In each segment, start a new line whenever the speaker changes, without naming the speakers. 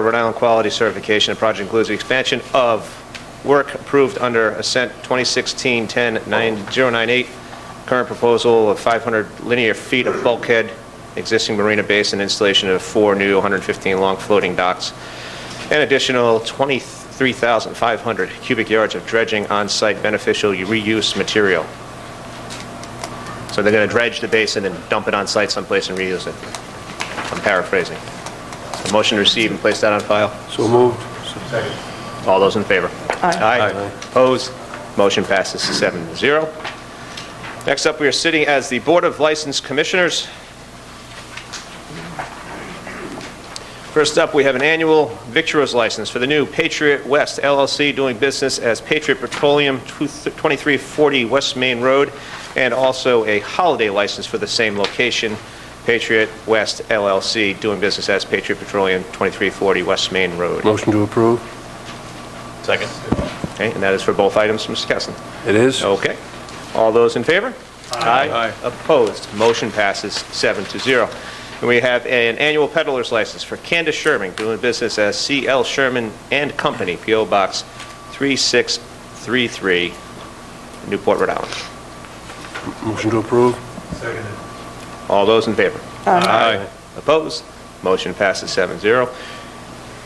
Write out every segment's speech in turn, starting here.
Rhode Island Quality Certification. The project includes the expansion of work approved under Ascent 2016-10-098, current proposal of 500 linear feet of bulkhead, existing marina base, and installation of four new 115-long floating docks, an additional 23,500 cubic yards of dredging on-site beneficial reuse material. So they're going to dredge the basin and dump it on-site someplace and reuse it. I'm paraphrasing. A Motion to receive and place that on file.
So moved.
All those in favor?
Aye.
Opposed? Motion passes seven to zero. Next up, we are sitting as the Board of License Commissioners. First up, we have an annual victuals license for the new Patriot West LLC doing business as Patriot Petroleum 2340 West Main Road, and also a holiday license for the same location, Patriot West LLC doing business as Patriot Petroleum 2340 West Main Road.
Motion to approve?
Second. Okay, and that is for both items, Mr. Kessin.
It is?
Okay. All those in favor? Aye. Opposed? Motion passes seven to zero. And we have an annual peddler's license for Candace Sherman, doing business as CL Sherman and Company, PO Box 3633, Newport, Rhode Island.
Motion to approve?
All those in favor? Aye. Opposed? Motion passes 7-0.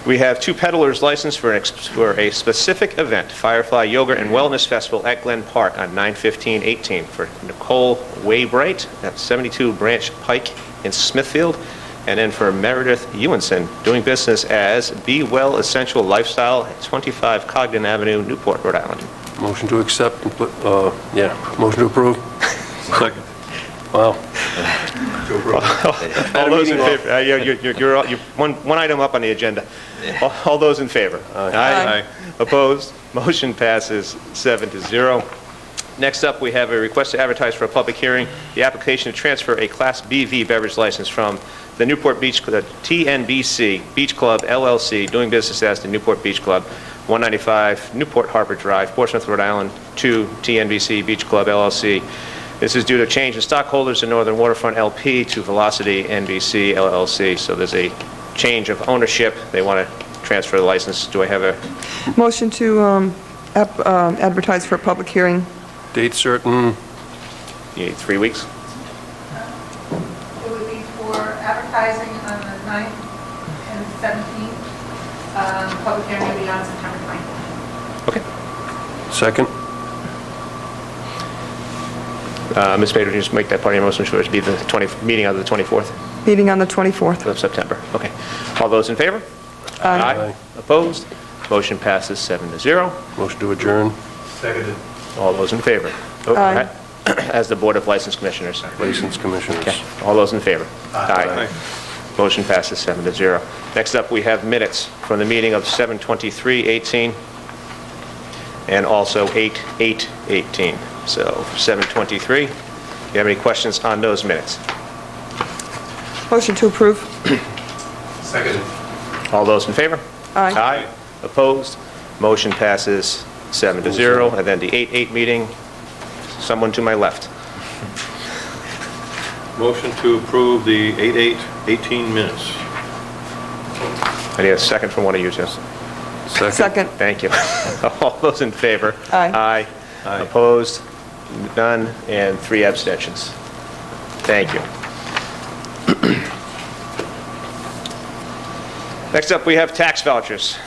We have two peddlers licensed for an ex- for a specific event, Firefly Yoga and Wellness Festival at Glen Park on 9/15/18 for Nicole Waybright at 72 Branch Pike in Smithfield, and then for Meredith Ewenson, doing business as Be Well Essential Lifestyle at 25 Cogden Avenue, Newport, Rhode Island.
Motion to accept, and put- uh, yeah, motion to approve? Second. Wow.
All those in
meeting, Bob.
favor, uh, you're, you're- you're- you're, all- you're one, one item up on the agenda. All- All those in favor? Aye. Opposed? Motion passes seven to zero. Next up, we have a request to advertise for a public hearing, the application to transfer a Class BV beverage license from the Newport Beach, the TNBC Beach Club LLC, doing business as the Newport Beach Club, 195 Newport Harbor Drive, Portsmouth, Rhode Island, to TNBC Beach Club LLC. This is due to change in stockholders in Northern Waterfront LP to Velocity NBC LLC. So there's a change of ownership. They want to transfer the license. Do I have a
Motion to um, ap- um, advertise for a public hearing.
Date certain,
you need three weeks?
It would be for advertising on the 9th and 17th. Um, Public hearing will be on September 20th.
Okay.
second?
Uh, Ms. Pedro, just make that part of your motion, sure it be the 20, meeting on the 24th
Meeting on the 24th.
of September. Okay. All those in favor?
Aye.
Opposed? Motion passes seven to zero.
Motion to adjourn?
All those in favor? Oh,
Aye.
As the Board of License Commissioners.
License commissioners?
Okay, all those in favor? Aye. Motion passes seven to zero. Next up, we have minutes from the meeting of 7:23:18 and also 8:8:18. So 7:23, do you have any questions on those minutes?
Motion to approve.
All those in favor?
Aye.
Aye. Opposed? Motion passes seven to zero. And then the 8:8 meeting, someone to my left.
Motion to approve the 8/8/18 minutes.
I need a second from one of you, Jess.
Second.
Thank you. All those in favor?
Aye.
Aye. Opposed? None, and three abstentions. Thank you. Next up, we have tax vouchers.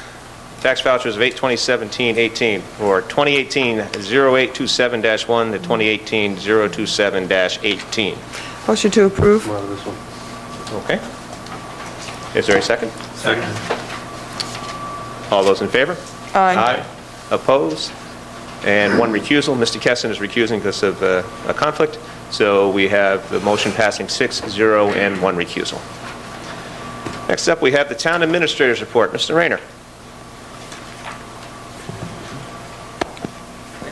Tax vouchers of 8/2017-18, or 2018-0827-1 to 2018-027-18.
Motion to approve.
Come out of this one.
Okay? Is there a second?
Second.
All those in favor?
Aye.
Opposed? And one recusal. Mr. Kessin is recusing because of uh, a conflict. So we have the motion passing six, zero, and one recusal. Next up, we have the Town Administrator's Report. Mr. Rayner.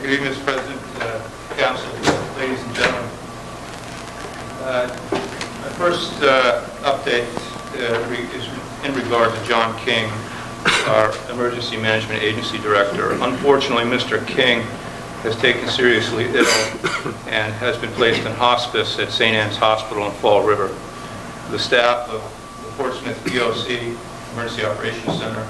Good evening, Mr. President, uh, Council, ladies and gentlemen. Uh, My first uh, update uh, re- is in regard to John King, our Emergency Management Agency Director. Unfortunately, Mr. King has taken seriously ill and has been placed in hospice at St. Anne's Hospital in Fall River. The staff of the Portsmouth BOC Emergency Operations Center.